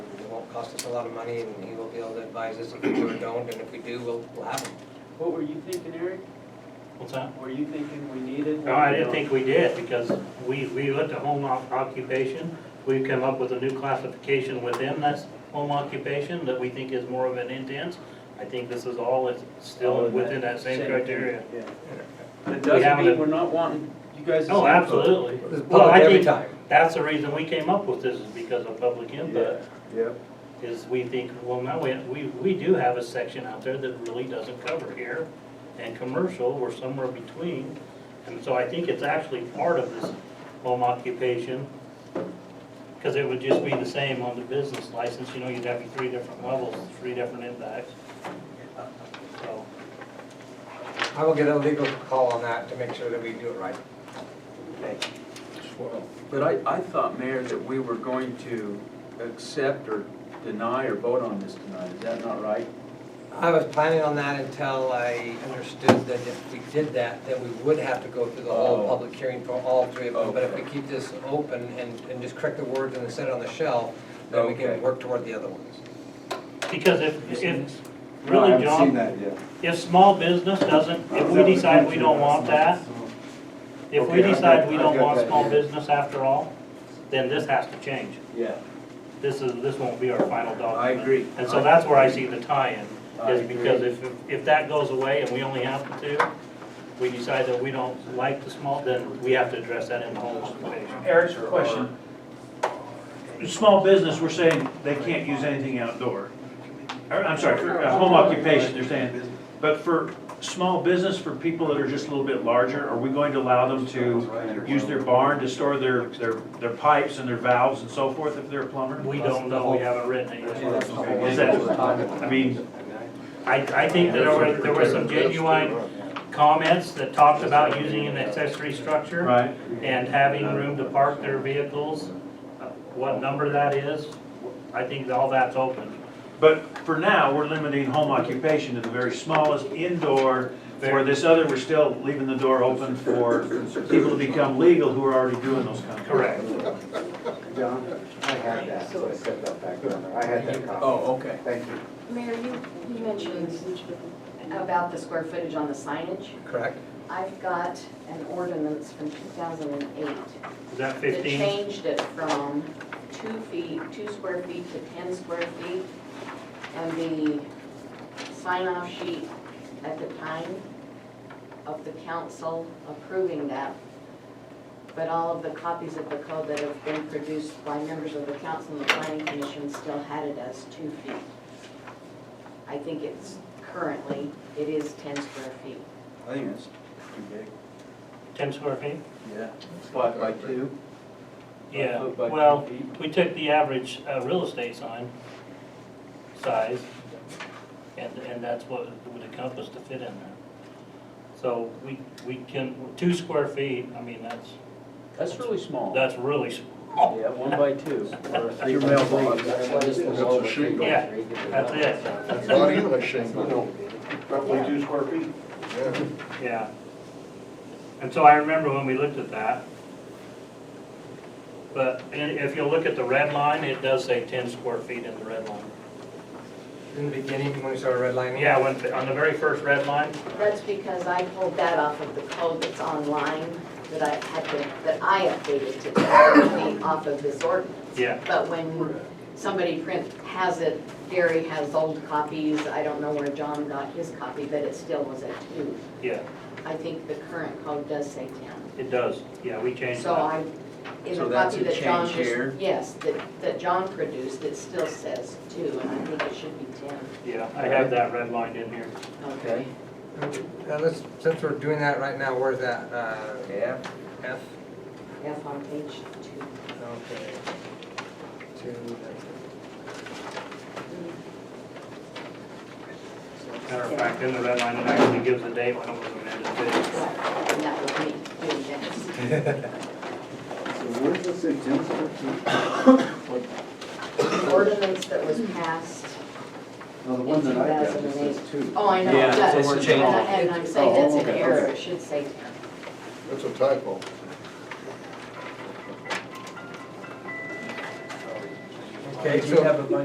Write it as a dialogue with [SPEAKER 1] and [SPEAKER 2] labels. [SPEAKER 1] cost us a lot of money, and he will be able to advise us if we do or don't, and if we do, we'll, we'll have them.
[SPEAKER 2] What were you thinking, Eric?
[SPEAKER 3] What's that?
[SPEAKER 2] Were you thinking we needed?
[SPEAKER 3] No, I didn't think we did, because we, we looked at home oc- occupation, we've come up with a new classification within this home occupation that we think is more of an intense. I think this is all, it's still within that same criteria.
[SPEAKER 2] Yeah. But it doesn't
[SPEAKER 3] haven't-
[SPEAKER 2] mean we're not wanting you guys.
[SPEAKER 3] Oh, absolutely.
[SPEAKER 1] It's
[SPEAKER 3] Well,
[SPEAKER 1] public
[SPEAKER 3] I
[SPEAKER 1] every
[SPEAKER 3] think
[SPEAKER 1] time.
[SPEAKER 3] that's the reason we came up with this, is because of public input,
[SPEAKER 4] Yep.
[SPEAKER 3] is we think, well, now, we, we, we do have a section out there that really doesn't cover here, and commercial, we're somewhere between, and so I think it's actually part of this home occupation, because it would just be the same on the business license, you know, you'd have your three different levels, three different impacts. So,
[SPEAKER 1] I will get a legal call on that to make sure that we do it right.
[SPEAKER 4] But I, I thought, Mayor, that we were going to accept or deny or vote on this tonight, is that not right?
[SPEAKER 1] I was planning on that until I understood that if we did that, that we would have to go through the whole
[SPEAKER 4] Oh.
[SPEAKER 1] public hearing for all three of them. But if we
[SPEAKER 4] Okay.
[SPEAKER 1] keep this open and, and just correct the words and set it on the shelf, then we
[SPEAKER 4] Okay.
[SPEAKER 1] can work toward the other ones.
[SPEAKER 3] because if, if,
[SPEAKER 5] No, I
[SPEAKER 3] really,
[SPEAKER 5] haven't seen
[SPEAKER 3] John,
[SPEAKER 5] that yet.
[SPEAKER 3] if small business doesn't, if we decide we don't want that, If we
[SPEAKER 4] Okay, I've
[SPEAKER 3] decide
[SPEAKER 4] got-
[SPEAKER 3] we
[SPEAKER 4] I've
[SPEAKER 3] don't
[SPEAKER 4] got
[SPEAKER 3] want
[SPEAKER 4] that
[SPEAKER 3] small
[SPEAKER 4] here.
[SPEAKER 3] business after all, then this has to change.
[SPEAKER 4] Yeah.
[SPEAKER 3] This is, this won't be our final document.
[SPEAKER 4] I agree.
[SPEAKER 3] And so that's where I see the tie-in,
[SPEAKER 4] I
[SPEAKER 3] is because
[SPEAKER 4] agree.
[SPEAKER 3] if, if that goes away and we only have the two, we decide that we don't like the small, then we have to address that in the whole occupation.
[SPEAKER 6] Eric's question. Small business, we're saying they can't use anything outdoor. Or, I'm sorry, for uh, home occupation, they're saying. But for small business, for people that are just a little bit larger, are we going to allow them to use their barn to store their, their, their pipes and their valves and so forth if they're a plumber?
[SPEAKER 3] We don't know, we haven't written it yet.
[SPEAKER 6] Is that, I mean,
[SPEAKER 3] I, I think that there were, there were some genuine comments that talked about using an accessory structure.
[SPEAKER 6] right?
[SPEAKER 3] and having room to park their vehicles, uh, what number that is, I think all that's open.
[SPEAKER 6] But for now, we're limiting home occupation to the very smallest indoor, where this other, we're still leaving the door open for people to become legal who are already doing those kinds of.
[SPEAKER 3] Correct.
[SPEAKER 5] John, I had that, so I set that back down there. I had that copy.
[SPEAKER 4] Oh, okay.
[SPEAKER 5] Thank you.
[SPEAKER 7] Mayor, you, you mentioned about the square footage on the signage.
[SPEAKER 1] Correct?
[SPEAKER 7] I've got an ordinance from 2008
[SPEAKER 3] Is that
[SPEAKER 7] that
[SPEAKER 3] fifteen?
[SPEAKER 7] changed it from two feet, two square feet to 10 square feet. And the sign-off sheet at the time of the council approving that, but all of the copies of the code that have been produced by members of the council and the planning commission still had it as two feet. I think it's currently, it is 10 square feet.
[SPEAKER 4] I think that's too big.
[SPEAKER 3] Ten square feet?
[SPEAKER 4] Yeah. Five by two?
[SPEAKER 3] Yeah,
[SPEAKER 4] Five by two
[SPEAKER 3] well,
[SPEAKER 4] feet.
[SPEAKER 3] we took the average, uh, real estate sign size, and, and that's what it would encompass to fit in there. So we, we can, two square feet, I mean, that's,
[SPEAKER 4] That's really small.
[SPEAKER 3] that's really, s-
[SPEAKER 4] Yeah, one by two. Your mailbox.
[SPEAKER 3] yeah, that's it,
[SPEAKER 8] Not English shingle.
[SPEAKER 5] Roughly two square feet.
[SPEAKER 3] yeah. And so I remember when we looked at that. But i- if you look at the red line, it does say ten square feet in the red line.
[SPEAKER 1] In the beginning, when we started redlining?
[SPEAKER 3] Yeah, when, on the very first red line,
[SPEAKER 7] That's because I pulled that off of the code that's online that I had to, that I updated to be off of this ordinance.
[SPEAKER 3] yeah.
[SPEAKER 7] But when somebody print, has it, Gary has old copies, I don't know where John got his copy, but it still was at two.
[SPEAKER 3] Yeah,
[SPEAKER 7] I think the current code does say ten.
[SPEAKER 3] it does. Yeah, we changed
[SPEAKER 7] So
[SPEAKER 3] that.
[SPEAKER 7] I, in
[SPEAKER 4] So
[SPEAKER 7] the
[SPEAKER 4] that's
[SPEAKER 7] copy
[SPEAKER 4] a
[SPEAKER 7] that John
[SPEAKER 4] change here?
[SPEAKER 7] just, yes, that, that John produced, it still says two, and I think it should be ten.
[SPEAKER 3] Yeah, I have that red line in here.
[SPEAKER 4] Okay.
[SPEAKER 1] Uh, let's, since we're doing that right now, where's that, uh,
[SPEAKER 4] Yeah.
[SPEAKER 1] F?
[SPEAKER 7] F on page two.
[SPEAKER 1] Okay. Two,
[SPEAKER 3] Matter of fact, in the red line, it actually gives the date when it was amended to.
[SPEAKER 7] And that was me doing this.
[SPEAKER 5] So where's this at, Jim's?
[SPEAKER 7] The ordinance that was passed,
[SPEAKER 5] No, the one that I got, it says two.
[SPEAKER 7] oh, I know,
[SPEAKER 4] Yeah,
[SPEAKER 7] that,
[SPEAKER 4] so we're
[SPEAKER 7] and
[SPEAKER 4] changing
[SPEAKER 7] I-
[SPEAKER 4] it.
[SPEAKER 7] and I'm saying that's an
[SPEAKER 5] Oh, okay,
[SPEAKER 7] error,
[SPEAKER 5] okay.
[SPEAKER 7] it should say ten.
[SPEAKER 8] That's a typo.
[SPEAKER 1] Okay,
[SPEAKER 4] Did you
[SPEAKER 1] so-
[SPEAKER 4] have a bunch